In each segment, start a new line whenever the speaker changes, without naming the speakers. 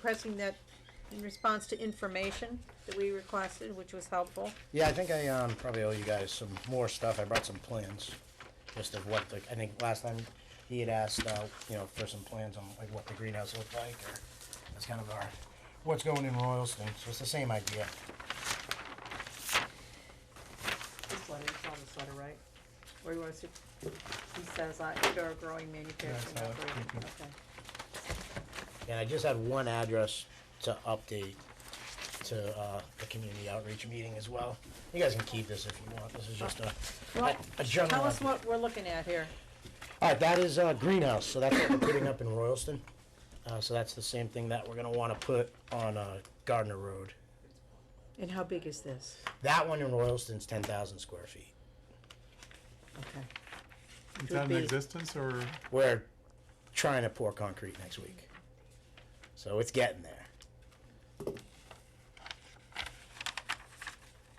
pressing um, that in response to information that we requested, which was helpful.
Yeah, I think I, um, probably owe you guys some more stuff, I brought some plans, just of what the, I think last time he had asked, uh, you know, for some plans on like what the greenhouse looked like, or that's kind of our, what's going in Royalston, so it's the same idea.
This letter, you saw this letter, right? Where he wants to, he says, I, indoor growing manufacturing
Yeah, I saw it.
operation,
Mhm.
okay.
And I just had one address to update to, uh, the community outreach meeting as well. You guys can keep this if you want, this is just a,
Well,
a general.
Tell us
idea.
what we're looking at here.
All right, that is uh, greenhouse, so that's what we're putting up in Royalston. Uh, so that's the same thing that we're gonna want to put on uh, Gardner Road.
And how big is this?
That one in Royalston's ten thousand square feet.
Okay.
Is
would
that
be-
in existence or?
We're trying to pour concrete next week, so it's getting there.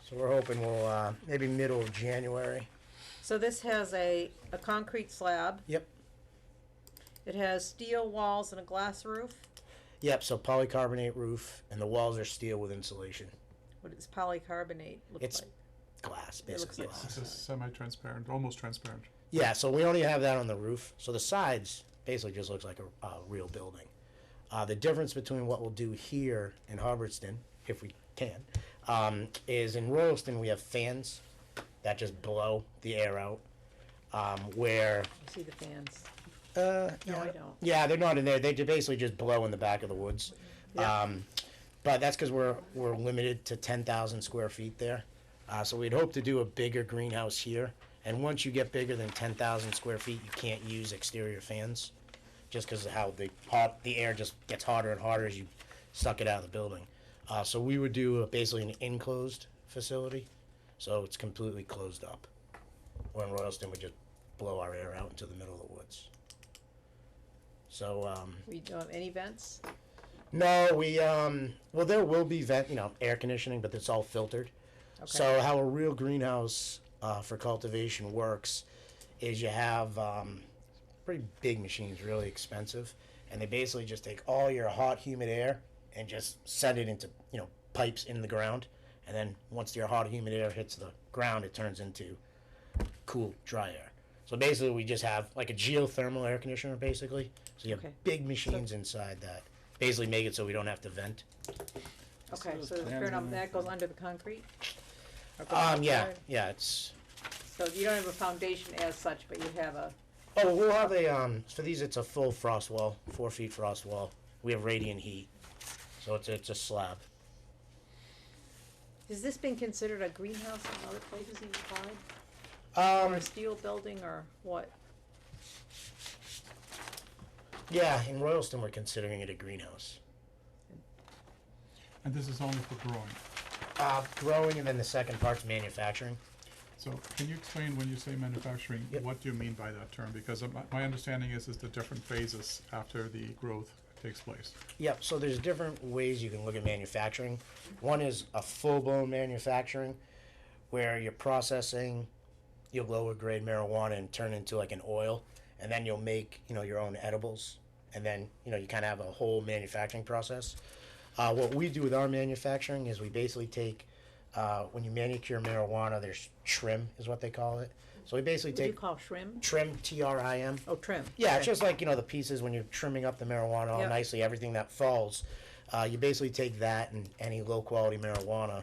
So we're hoping we'll uh, maybe middle of January.
So this has a, a concrete slab,
Yep.
it has steel walls and a glass roof.
Yep. So polycarbonate roof, and the walls are steel with insulation.
What does polycarbonate look like?
It's glass,
It looks
basically.
like-
glass.
This is semi-transparent, almost transparent.
Yeah, so we only have that on the roof. So the sides basically just looks like a, a real building. Uh, the difference between what we'll do here in Hubbardston, if we can, um, is in Royalston we have fans that just blow the air out. Um, where
You see the fans?
uh,
No, I don't.
yeah, they're not in there. They ju- basically just blow in the back of the woods.
Yeah.
Um, but that's because we're we're limited to ten thousand square feet there. Uh, so we'd hope to do a bigger greenhouse here. And once you get bigger than ten thousand square feet, you can't use exterior fans, just because of how the hot the air just gets hotter and hotter as you suck it out of the building. Uh, so we would do a, basically an enclosed facility, so it's completely closed up. Where in Royalston would just blow our air out into the middle of the woods. So, um,
We don't have any vents?
no, we, um, well, there will be vent, you know, air conditioning, but it's all filtered. So how a real greenhouse, uh, for cultivation works is you have, um, pretty big machines, really expensive. And they basically just take all your hot, humid air and just set it into, you know, pipes in the ground. And then once your hot, humid air hits the ground, it turns into cool, dry air. So basically, we just have like a geothermal air conditioner, basically. So you have
Okay.
big machines inside that basically make it so we don't have to vent.
Okay,
those
so the
plans
fair enough,
on
that goes under the concrete? Or goes
Um, yeah,
outside?
yeah, it's.
So you don't have a foundation as such, but you have a,
Oh, we'll have a um. For these, it's a full frost wall, four feet frost wall. We have radiant heat, so it's it's a slab.
has this been considered a greenhouse in other places you've applied? Or
Um,
a steel building or what?
yeah, in Royalston, we're considering it a greenhouse.
And this is only for growing.
Uh, growing, and then the second part's manufacturing.
So can you explain when you say manufacturing,
Yep.
what do you mean by that term? Because uh, my, my understanding is, is the different phases after the growth takes place.
Yep. So there's different ways you can look at manufacturing. One is a full-blown manufacturing, where you're processing your lower-grade marijuana and turn it into like an oil, and then you'll make you know your own edibles, and then you know you kind of have a whole manufacturing process. Uh, what we do with our manufacturing is we basically take uh, when you manicure marijuana, there's trim is what they call it. So we basically
What do you
take
call shrim?
trim, T R I M.
Oh, trim.
Yeah,
okay.
it's just like, you know, the pieces when you're trimming up the marijuana all
Yep.
nicely, everything that falls. Uh, you basically take that and any low quality marijuana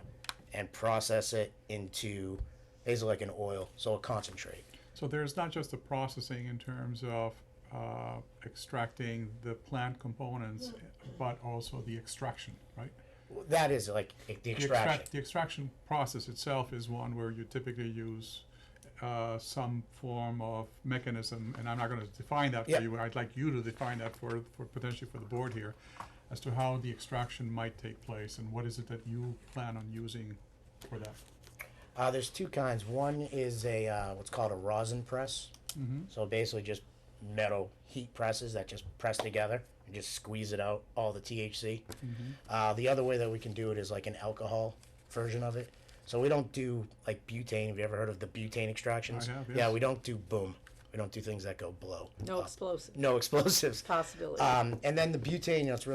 and process it into basically like an oil, so a concentrate.
So there's not just the processing in terms of uh, extracting the plant components, but also the extraction, right?
That is like the
The
extraction.
extract, the extraction process itself is one where you typically use uh, some form of mechanism, and I'm not gonna define that
Yeah.
for you, I'd like you to define that for, for potentially for the board here, as to how the extraction might take place, and what is it that you plan on using for that?
Uh, there's two kinds. One is a uh, what's called a rosin press.
Mhm.
So basically, just metal heat presses that just press together and just squeeze it out all the THC.
Mm-hmm.
Uh, the other way that we can do it is like an alcohol version of it. So we don't do like butane. Have you ever heard of the butane extractions?
I have,
Yeah,
yes.
we don't do boom. We don't do things that go blow.
No
up.
explosive
No explosives.
possibility.
Uh, Um, and then the butane, you know, it's really